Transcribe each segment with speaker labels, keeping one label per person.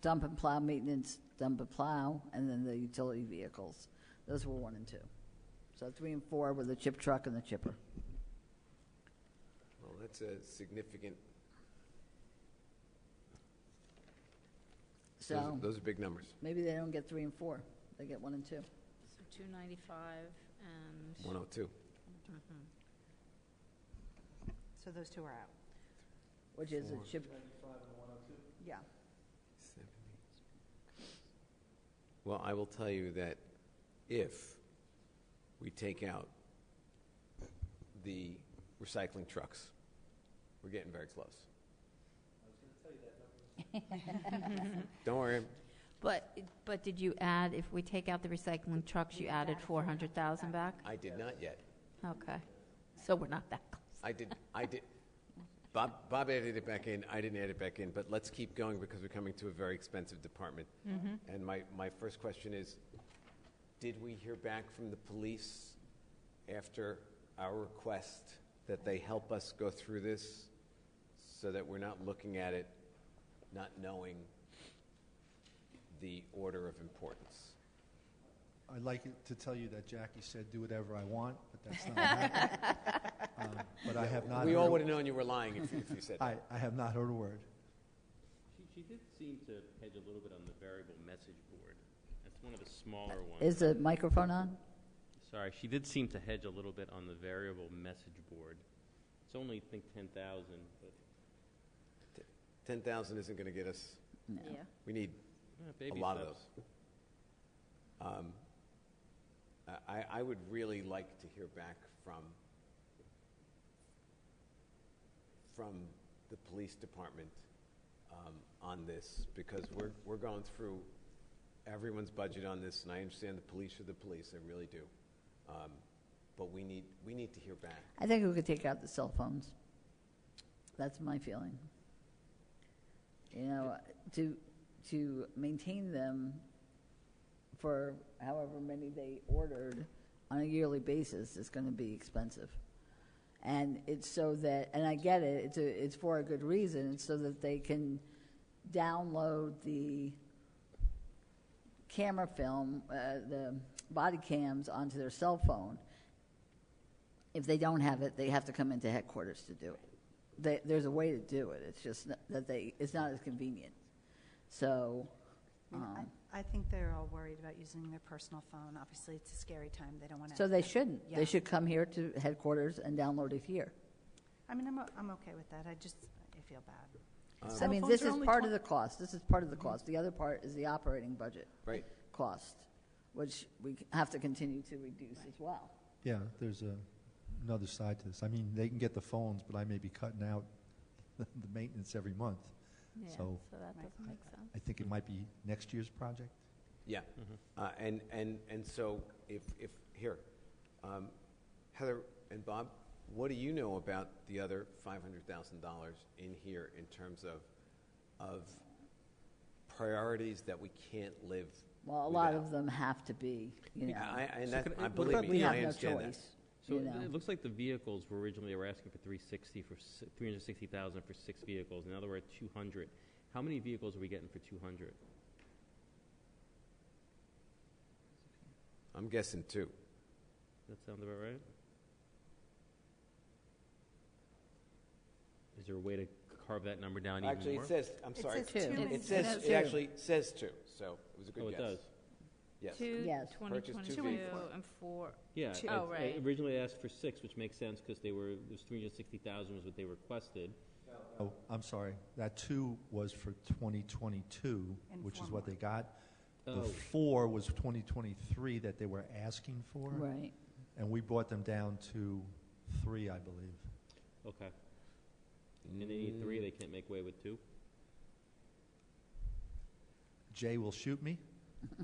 Speaker 1: dump and plow maintenance, dump and plow, and then the utility vehicles. Those were one and two. So three and four were the chip truck and the chipper.
Speaker 2: Well, that's a significant, those are-
Speaker 1: So
Speaker 2: those are big numbers.
Speaker 1: maybe they don't get three and four. They get one and two.
Speaker 3: So 295 and, mm-hmm.
Speaker 2: 102.
Speaker 4: So those two are out.
Speaker 1: Which is a
Speaker 2: Four.
Speaker 1: chip. Yeah.
Speaker 2: Well, I will tell you that if we take out the recycling trucks, we're getting very close. I was going to tell you that. Don't worry,
Speaker 3: but, but did you add, if we take out the recycling trucks, you added 400,000 back?
Speaker 2: I did not yet.
Speaker 3: Okay, so we're not that close.
Speaker 2: I did, I did, Bob, Bob added it back in, I didn't add it back in, but let's keep going because we're coming to a very expensive department. And my, my first question is, did we hear back from the police after our request that they help us go through this so that we're not looking at it, not knowing the order of importance?
Speaker 5: I'd like it to tell you that Jackie said, "Do whatever I want," but that's not happening. Um, But I have not
Speaker 2: We all would
Speaker 5: heard,
Speaker 2: have known you were lying if if you said that.
Speaker 5: I, I have not heard a word.
Speaker 6: She, she did seem to hedge a little bit on the variable message board. That's one of the smaller ones.
Speaker 1: Is the microphone on?
Speaker 6: Sorry, she did seem to hedge a little bit on the variable message board. It's only, I think, ten thousand, but
Speaker 2: 10,000 isn't going to get us,
Speaker 3: Yeah.
Speaker 2: we need
Speaker 6: eh, baby
Speaker 2: a lot of
Speaker 6: steps.
Speaker 2: those. Um, I, I would really like to hear back from from the police department um, on this because we're we're going through everyone's budget on this, and I understand the police are the police, I really do. Um, but we need we need to hear back.
Speaker 1: I think we could take out the cell phones. That's my feeling. You know, to, to maintain them for however many they ordered on a yearly basis is going to be expensive. And it's so that, and I get it, it's, a, it's for a good reason, it's so that they can download the camera film, uh, the body cams onto their cell phone if they don't have it, they have to come into headquarters to do it. They, there's a way to do it. It's just n- that they, it's not as convenient. So,
Speaker 4: I mean, I-
Speaker 1: um,
Speaker 4: I think they're all worried about using their personal phone. Obviously, it's a scary time. They don't want to.
Speaker 1: so they shouldn't.
Speaker 4: Yeah.
Speaker 1: They should come here to headquarters and download it here.
Speaker 4: I mean, I'm, o- I'm okay with that. I just, I feel bad.
Speaker 1: I
Speaker 2: Uh,
Speaker 4: Cell
Speaker 1: mean,
Speaker 4: phones
Speaker 1: this
Speaker 4: are
Speaker 1: is
Speaker 4: only
Speaker 1: part
Speaker 4: twen- Mm-hmm.
Speaker 1: of the cost. This is part of the cost. The other part is the operating budget
Speaker 2: Right.
Speaker 1: cost, which we c- have to continue to reduce as well.
Speaker 5: Yeah, there's a, another side to this. I mean, they can get the phones, but I may be cutting out the maintenance every month.
Speaker 3: Yeah, so
Speaker 5: So-
Speaker 3: that
Speaker 4: Right.
Speaker 3: doesn't make sense.
Speaker 5: I think it might be next year's project.
Speaker 2: Yeah,
Speaker 6: Mm-hmm.
Speaker 2: uh, and, and, and so if, if, here, um, Heather and Bob, what do you know about the other $500,000 in here in terms of, of priorities that we can't live
Speaker 1: Well, a lot
Speaker 2: without?
Speaker 1: of them have to be, you know.
Speaker 2: Yeah, I, I- and
Speaker 6: So
Speaker 2: that,
Speaker 6: can I-
Speaker 2: I
Speaker 6: what
Speaker 2: believe
Speaker 6: about
Speaker 1: we
Speaker 2: me,
Speaker 1: have
Speaker 2: I
Speaker 1: no
Speaker 2: understand that.
Speaker 1: choice.
Speaker 6: So
Speaker 1: you
Speaker 6: it-
Speaker 1: know.
Speaker 6: it looks like the vehicles were originally, they were asking for three sixty, for three hundred sixty thousand for six vehicles. Now they're at two hundred. How many vehicles are we getting for two hundred?
Speaker 2: I'm guessing two.
Speaker 6: That sound about right? Is there a way to carve that number down even more?
Speaker 2: Actually, it says, I'm
Speaker 4: It
Speaker 2: sorry.
Speaker 4: says two
Speaker 3: It
Speaker 2: It
Speaker 4: and-
Speaker 2: says,
Speaker 1: says
Speaker 2: it
Speaker 1: two.
Speaker 2: actually says two, so it was a good
Speaker 6: Oh,
Speaker 2: guess.
Speaker 6: it does?
Speaker 2: Yes.
Speaker 3: Two,
Speaker 1: Yes.
Speaker 2: Purchase two
Speaker 3: 2022,
Speaker 2: vehicles.
Speaker 3: and four,
Speaker 6: Yeah,
Speaker 3: Two.
Speaker 6: I-
Speaker 3: Oh,
Speaker 6: I
Speaker 3: right.
Speaker 6: originally asked for six, which makes sense because they were, it was three hundred sixty thousand was what they requested.
Speaker 5: Oh, I'm sorry, that two was for 2022,
Speaker 4: And
Speaker 5: which
Speaker 4: four
Speaker 5: is what
Speaker 4: more.
Speaker 5: they got. The
Speaker 6: Oh.
Speaker 5: four was 2023 that they were asking for.
Speaker 1: Right.
Speaker 5: And we brought them down to three, I believe.
Speaker 6: Oh, Okay. And they need three, they can't make way with two?
Speaker 5: Jay will shoot me.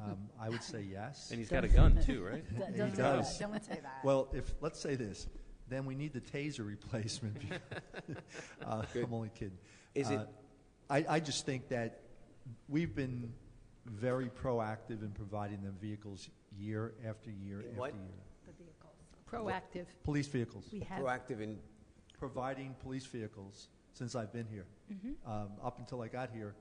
Speaker 5: Um, I would say yes.
Speaker 6: And he's got a gun too, right?
Speaker 1: That
Speaker 5: He
Speaker 1: doesn't-
Speaker 5: does.
Speaker 4: Don't say that.
Speaker 5: Well, if, let's say this, then we need the taser replacement. because- Uh, I'm only kidding.
Speaker 2: Is it-
Speaker 5: Uh, I, I just think that we've been very proactive in providing them vehicles year after year
Speaker 2: In
Speaker 5: after
Speaker 2: what?
Speaker 5: year.
Speaker 3: proactive.
Speaker 5: Police vehicles.
Speaker 3: We have,
Speaker 2: Proactive in,
Speaker 3: Mm-hmm.
Speaker 5: Providing police vehicles since I've been here. Um, Up until I got here,